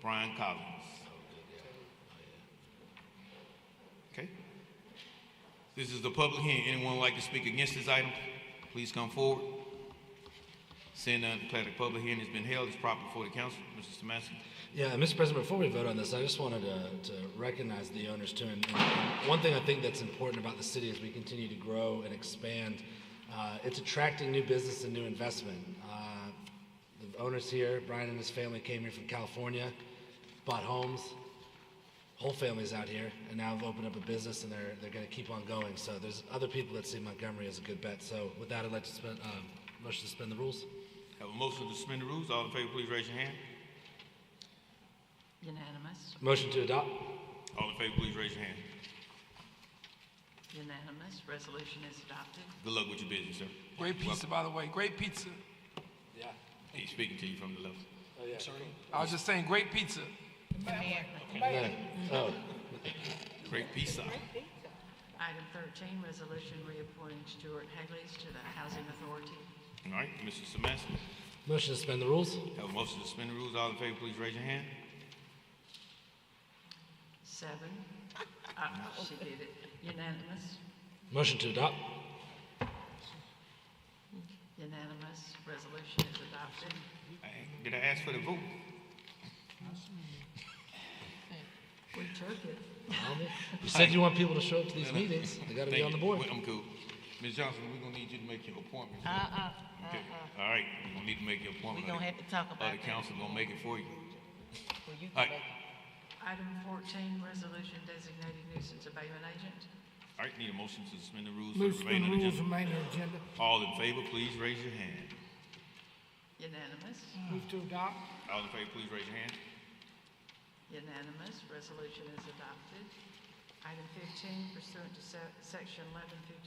Brian Collins. Okay. This is the public hearing. Anyone would like to speak against this item? Please come forward. Seeing none, declare the public hearing has been held. It's proper before the council. Mr. Samaski. Yeah, Mr. President, before we vote on this, I just wanted to, to recognize the owners too. And, and one thing I think that's important about the city as we continue to grow and expand, uh, it's attracting new business and new investment. Uh, the owners here, Brian and his family came here from California, bought homes, whole families out here, and now have opened up a business and they're, they're going to keep on going. So there's other people that see Montgomery as a good bet. So with that, I'd like to spend, um, motion to suspend the rules. Have a motion to suspend the rules. All in favor, please raise your hand. Unanimous, Motion to adopt. All in favor, please raise your hand. unanimous, resolution is adopted. Good luck with your business, sir. Great pizza, by the way. Great pizza. Yeah. He's speaking to you from the left. Oh, yeah. I was just saying, great pizza. Oh, Great pizza. Item 13, resolution reappointing Stuart Haley's to the Housing Authority. All right, Mr. Samaski. motion to suspend the rules. Have a motion to suspend the rules. All in favor, please raise your hand. Seven, uh, she did it, unanimous, Motion to adopt. unanimous, resolution is adopted. Hey, Uh, Did I ask for the vote? We took it. You said you want people to show up to these meetings. They got to be Thank on the you. board. I'm cool. Ms. Johnson, we're gonna need you to make your appointment. Uh-uh, uh-uh. All right, you're gonna need to make your appointment. Uh-huh. Uh, We gonna have to talk Or about the that. council gonna make it for you. Well, you All can right, make Item 14, resolution designating nuisance abatement agent. all right, need a motion to suspend the rules for Move the to remainder the of the rules, agenda. remainder agenda. All in favor, please raise your hand. Unanimous, Move to adopt. All in favor, please raise your hand. unanimous, resolution is adopted. Item 15, pursuant to se- Section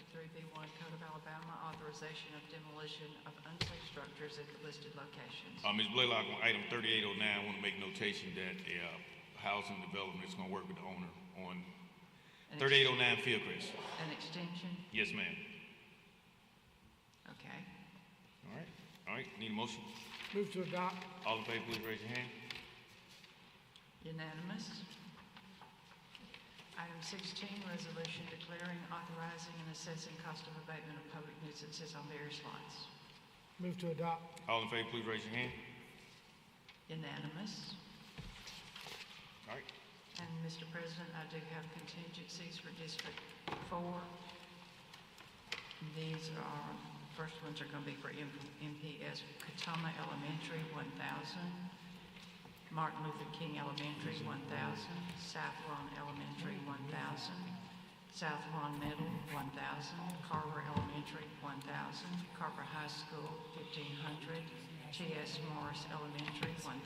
1153B1 Code of Alabama, authorization of demolition of unsafe structures at the listed locations. Uh, Ms. Blaylock, on item thirty-eight oh nine, I wanna make notation that, uh, housing development is gonna work with the owner on An ex- thirty-eight oh nine Fieldcrest. An extension, Yes, ma'am. okay. All right, all right, need a motion? Move to adopt. All in favor, please raise your hand. Unanimous. Item 16, resolution declaring, authorizing, and assessing cost of abatement of public nuisances on various lots. Move to adopt. All in favor, please raise your hand. Unanimous. All right, And Mr. President, I do have contingencies for District 4. These are, first ones are going to be for M- MPS Katama Elementary, 1,000. Martin Luther King Elementary, 1,000. South Lawn Elementary, 1,000. South Lawn Middle, 1,000. Carver Elementary, 1,000. Carver High School, 1,500. T.S. Morris Elementary, 1,000.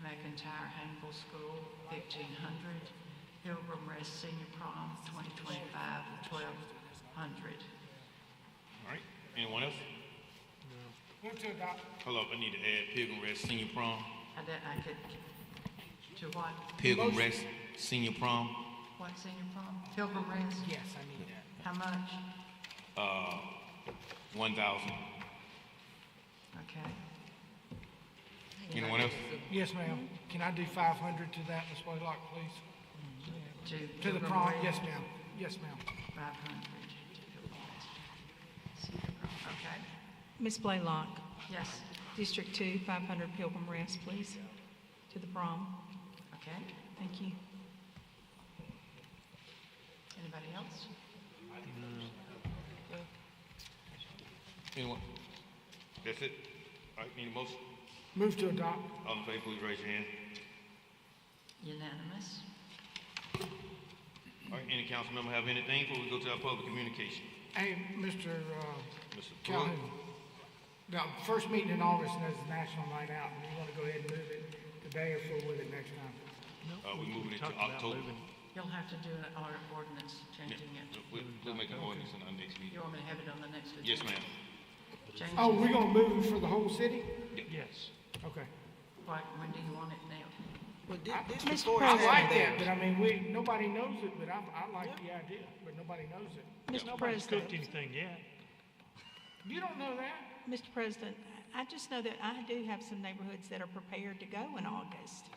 McIntyre Hankel School, fifteen hundred. Pilgrim Rest Senior Prom, twenty twenty-five, twelve hundred. all right. Anyone else? Move to adopt. Hold up, I need to add Pilgrim Rest Senior Prom. I did, I could, to what, Pilgrim Rest Senior Prom, what senior prom? Pilgrim Rest? Yes, I need that. How much? uh, one thousand. Okay. Anyone else? Yes, ma'am. Can I do five hundred to that, Ms. Blaylock, please? To To the Pilgrim prom, Rest, yes, ma'am. Yes, ma'am. Five hundred to Pilgrim Rest. Senior prom, okay. Ms. Blaylock, Yes, District 2, 500 Pilgrim Rest, please, to the prom. okay. Thank you. Anybody else? Anyone? That's it? All right, need a motion? Move to adopt. All in favor, please raise your hand. Unanimous. All right, any council member have anything before we go to our public communication? Hey, Mr. uh, Mr. Pruitt? Calhoun. Now, first meeting in August, and that's National Night Out, and you want to go ahead and move it today or forward with it next time? Uh, we moving it to October. You'll have to do an or- ordinance changing it. We'll, we'll make an ordinance in our next meeting. You want me to have it on the next agenda? Yes, ma'am. Change Oh, it. we're gonna move it for the whole city? Yes. Okay. Like, when do you want it now? Well, thi- this Mr. before I it's like out that, there. but I mean, we, nobody knows it, but I, I like the idea, but nobody knows it. Mr. President, anything yet. You don't know that? Mr. President, I just know that I do have some neighborhoods that are prepared to go in August.